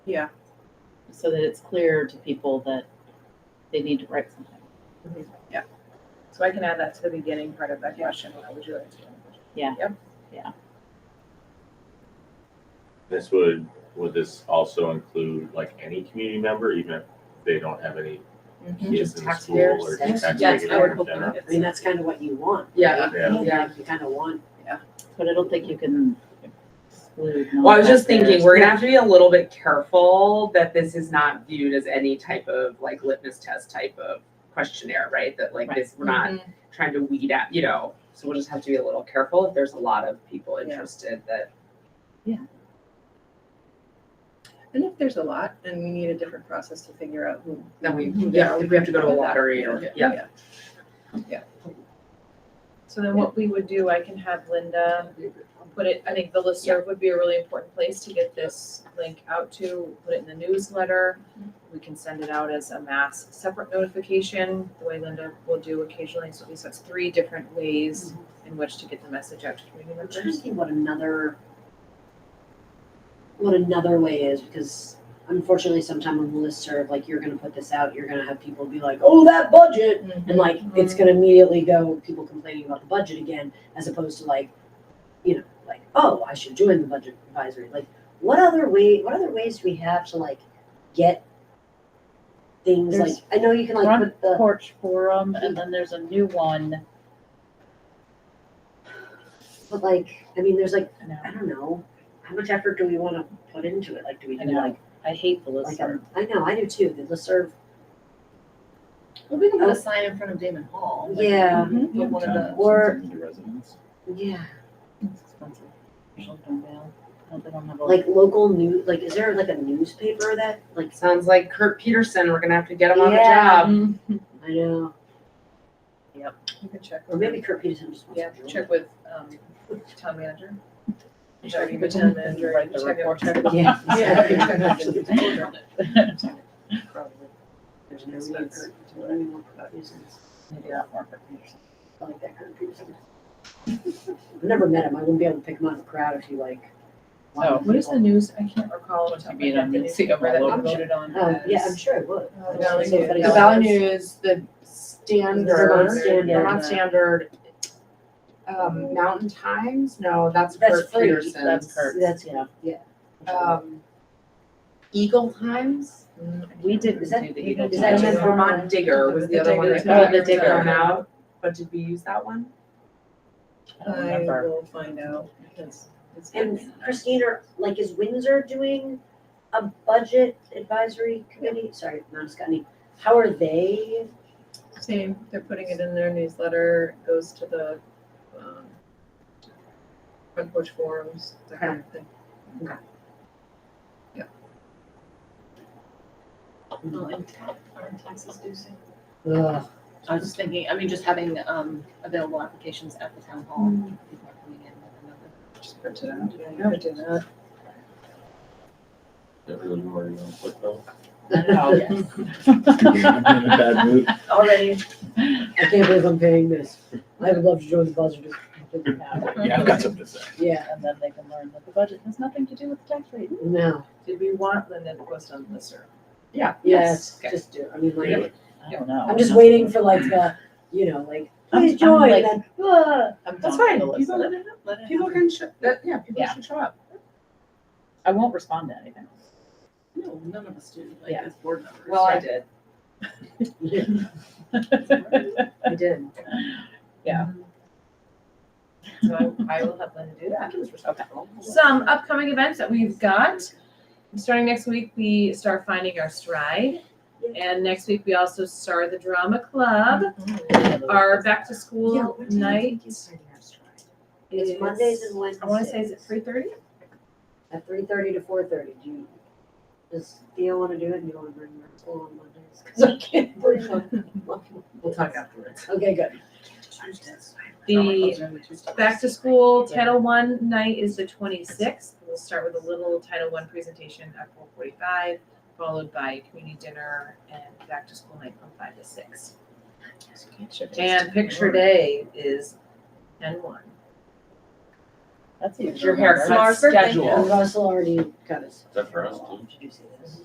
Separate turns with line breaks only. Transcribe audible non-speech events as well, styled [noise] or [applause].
Yeah.
so that it's clear to people that they need to write something.
Yeah. So I can add that to the beginning part of that question. How would you like to?
This would, would this also include like any community member, even if they don't have any kids in the school or
Taxpayers, yes.
tax
Yes, I would
regulators in
hope not.
general?
I mean, that's kind of what you want.
Yeah.
Yeah,
Yeah.
You kind of want.
But I don't think you can exclude.
Well, I was just thinking,
non-taxpayers.
we're gonna have to be a little bit careful that this is not viewed as any type of like litmus test type of questionnaire, right? That like this, we're not
Mm-hmm.
trying to weed out, you know, so we'll just have to be a little careful if there's a lot of people
Yeah.
interested that.
And if there's a lot and we need a different process to figure out who.
Then we,
Mhm.
yeah, if we have to go to a lottery
Yeah.
or, yeah.
Yeah. So then what we would do, I can have Linda put it, I think the listserv would be a really important place to get this link out to, put it in the newsletter. We can send it out as a mass separate notification, the way Linda will do occasionally, so at least that's three different ways in which to get the message out to community
I'm trying to
members.
think what another, what another way is, because unfortunately, sometime on the listserv, like, you're gonna put this out, you're gonna have people be like, oh, that budget!
Mm-hmm.
And like, it's gonna immediately go, people complaining about the budget again, as opposed to like, you know, like, oh, I should join the budget advisory. Like, what other way, what other ways do we have to like get things like,
There's
I know you can like
Front
put the.
porch forum, and then there's a new one.
But like, I mean, there's like,
I know.
I don't know, how much effort do we wanna put into it? Like, do we
I
do
know.
like,
I hate the
like,
listserv.
a- I know, I do too, the listserv,
Well, we can
put a
sign in front of Damon Hall.
yeah,
Mm-hmm.
one of the.
or-
Something to residents.
yeah.
It's expensive. Usually don't mail. No, they don't have a-
Like local news, like, is there like a newspaper that, like,
Sounds like Kurt Peterson, we're gonna have to get him on the
Mm-hmm.
Yeah.
job.
[laughs]
I know,
You can check.
or maybe Kurt Peterson just
Yeah,
wants to.
check with, um, town manager. Check
Check
with town manager.
Write the
check it-
report.
check it-
[laughs] Yeah. [laughs]
Yeah.
exactly. [laughs]
Probably.
There's no needs, I don't even know about reasons,
Maybe that won't work for you.
I like that Kurt Peterson. I've never met him, I wouldn't be able to pick him out of the crowd if he like.
Oh.
What is the news? I can't recall what
Should
time
be
we
in
got
a
the newspaper
newspaper
that we
logo.
voted on.
Oh, yeah, I'm
as-
sure it would.
Oh,
It's just
Valley
somebody
News.
The
else.
Valley News, the
Vermont
Standard,
Standard.
Vermont Standard, um, Mountain Times, no, that's
That's
Kurt
free.
Peterson's.
That's Kurt's.
That's, yeah, yeah.
um, Eagle Times.
Mm,
We didn't
Is that-
do the Eagle
is that
Times.
just-
Vermont Digger was the other one that
Digger
Times.
got
Oh, the Digger.
thrown out, but did we use that one?
I don't
I
remember.
will find out because it's.
And Christine, are, like, is Windsor doing a budget advisory committee? Sorry, not Scotty. How are they?
Same, they're putting it in their newsletter, it goes to the, um, front porch forums, that kind of thing.
Okay.
Yeah.
Aren't taxes due soon?
Ugh,
I was just
[laughs]
thinking, I mean, just having, um, available applications at the town hall. people are coming in with another-
Just print it out. Yeah, you gotta do that.
That really where you wanna put them.
I know.
I'm in a bad mood.
[laughs]
already, I can't believe I'm paying this. I would love to join the budget.
[laughs]
Yeah, I've got something to say.
Yeah,
And then they can learn that the budget has nothing to do with the tax rate.
no,
Did we want Linda to post on listserv?
Yeah.
yes,
Okay.
just do, I mean, like,
Really?
I don't know.
I'm just waiting for like the, you know, like,
I'm-
please
I'm
join,
like-
and then, ah.
I'm done
That's fine,
with the
people,
listserv.
Let it
people can show, that, yeah, people
Yeah.
should show up.
I won't respond to anything.
No, none of us do, like,
Yeah.
as board members.
Well, I did, I did.
So I, I will have Linda do that.
Okay.
Some upcoming events that we've got. Starting next week, we start finding our stride. And next week, we also start the drama club. Our back to school night is.
It's Mondays and Wednesdays.
I wanna say, is it three thirty?
At three thirty to four thirty, do you, does Theo wanna do it, do you wanna bring her school on Mondays? Cause I can't bring her.
We'll talk afterwards.
Okay, good.
The back to school Title One night is the twenty-sixth. We'll start with a little Title One presentation at four forty-five, followed by community dinner and back to school night from five to six. And picture day is ten one.
That's a
Your haircut
Smart thinking.
schedule.
And Russell already got his.
Is that for us too?
Should you see this?